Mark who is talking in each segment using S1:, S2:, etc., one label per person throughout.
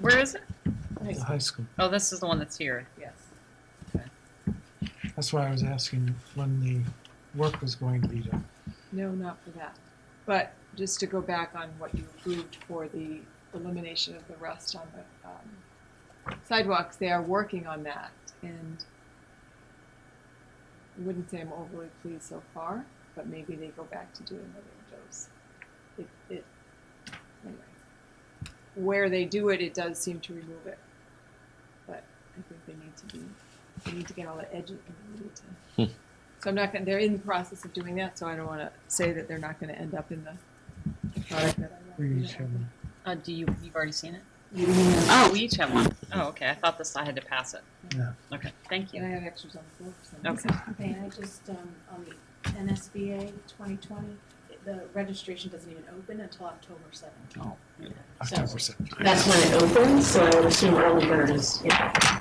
S1: Where is it?
S2: The high school.
S1: Oh, this is the one that's here.
S3: Yes.
S2: That's why I was asking when the work was going to be done.
S3: No, not for that. But just to go back on what you approved for the elimination of the rust on the um, sidewalks, they are working on that. And I wouldn't say I'm overly pleased so far, but maybe they go back to doing what they chose. It, it, anyway. Where they do it, it does seem to remove it. But I think they need to be, they need to get all the edges and they need to. So I'm not gonna, they're in the process of doing that, so I don't wanna say that they're not gonna end up in the the product that I
S2: We
S3: want.
S2: each have one.
S1: Uh, do you, you've already seen it?
S3: You know,
S1: Oh, we each have one. Oh, okay. I thought this, I had to pass it.
S2: Yeah.
S1: Okay, thank
S3: And I
S1: you.
S3: have extras on the floor for some
S1: Okay.
S3: reason.
S4: Okay, I just, um, on the NSBA twenty twenty, the registration doesn't even open until October seventh.
S2: October 7th.
S5: That's when it opens, so I would assume early bird is, yeah.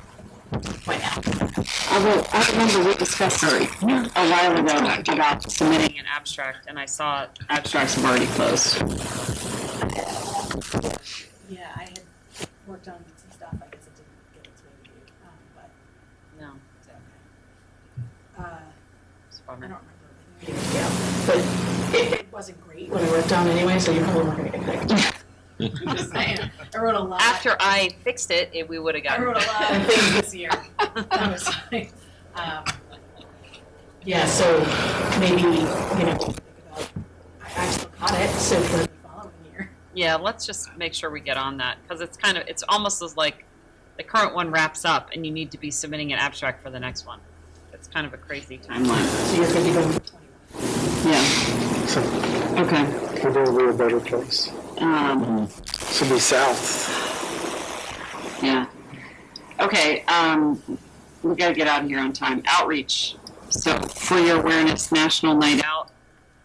S5: Why not? Although, I remember we discussed it a while ago about submitting
S1: An abstract, and I saw it.
S5: abstracts have already closed.
S4: Yeah, I had worked on some stuff, I guess it didn't get its way to you, um, but,
S1: No,
S4: it's okay. Uh,
S1: it's a
S4: I don't
S1: bummer.
S4: remember. what it was.
S5: Yeah, but it,
S4: It wasn't great.
S5: when I worked on it anyway, so you're probably not gonna get picked.
S4: I'm just saying, I wrote a lot.
S1: After I fixed it, it we would have
S4: I
S1: gotten.
S4: wrote a lot of things this year. That was like, um,
S5: Yeah, so maybe, you know,
S4: I actually
S5: on it, so for,
S4: the following year.
S1: Yeah, let's just make sure we get on that because it's kind of it's almost as like the current one wraps up and you need to be submitting an abstract for the next one. It's kind of a crazy timeline.
S5: so you're thinking of. Yeah,
S6: So
S5: okay.
S6: probably a better place.
S5: Um,
S6: Should be south.
S5: Yeah. Okay, um, we gotta get out of here on time. Outreach. So for your awareness, National Night Out.
S1: Out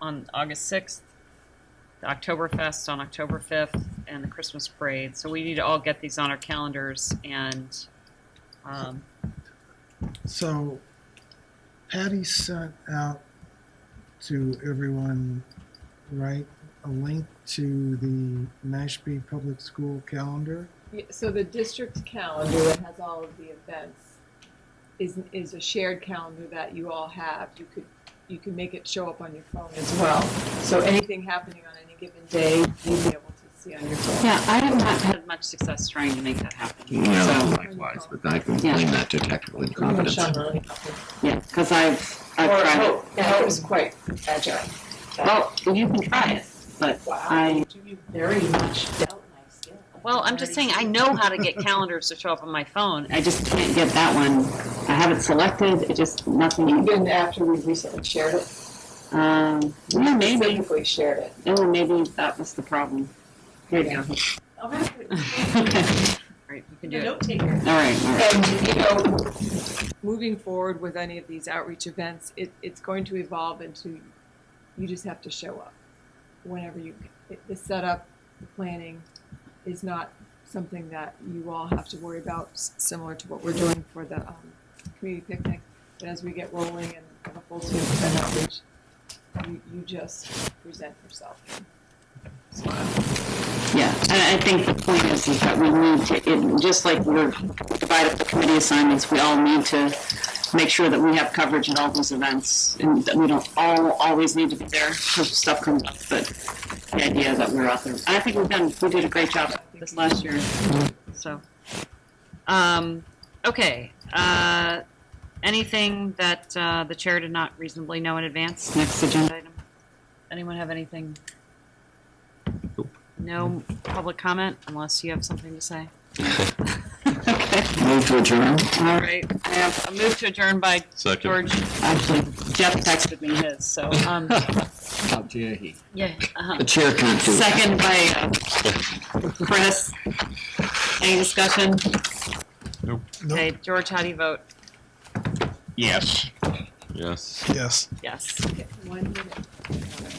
S1: on August sixth, the Oktoberfest on October fifth, and the Christmas parade. So we need to all get these on our calendars and um,
S2: So Patty sent out to everyone, right, a link to the Mashpee Public School calendar.
S3: Yeah, So the district calendar that has all of the events is, is a shared calendar that you all have. You could, you can make it show up on your phone as well. So anything happening on any given day, you'll be able to see on your phone.
S5: Yeah, I have not had.
S1: had much success trying to make that happen.
S7: Yeah, likewise, but I can blame that to technical incompetence.
S5: Yeah, because I've, I've tried
S4: yeah, it
S5: was quite agile. Well, you can try it, but I,
S4: Do you very much doubt my skill?
S1: Well, I'm just saying I know how to get calendars to show up on my phone.
S5: I just can't get that one. I have it selected, it just, nothing. Even after we recently shared it? Um, yeah, maybe.
S8: we shared it.
S5: Oh, maybe that was the problem. Here you go.
S4: I'll have to-
S1: Right, you can
S4: I'm a
S1: do it.
S4: note taker.
S5: All right, all right.
S8: And, you know,
S3: moving forward with any of these outreach events, it, it's going to evolve into you just have to show up whenever you it, the setup, the planning is not something that you all have to worry about, s- similar to what we're doing for the um, community picnic. But as we get rolling and have a full swing of event outreach, you, you just present yourself.
S5: Yeah, and I think the point is, is that we need to, it, just like we're divided up the committee assignments, we all need to make sure that we have coverage at all those events, and that we don't all always need to be there, because stuff comes up, but the idea that we're out there. And I think we've done, we did a great job this last year.
S1: So, um, okay. Uh, anything that uh, the chair did not reasonably know in advance?
S5: Next agenda.
S1: Item. Anyone have anything? No public comment unless you have something to say.
S7: Move to adjourn?
S1: All right. I have a move to adjourn by George.
S5: Actually,
S1: Jeff texted me his, so um, yeah. Uh-huh.
S7: The chair can't do it.
S5: second by uh,
S1: Chris, any discussion?
S2: Nope.
S1: Okay, George, how do you vote?
S7: Yes.
S2: Yes.
S1: Yes.
S4: One minute.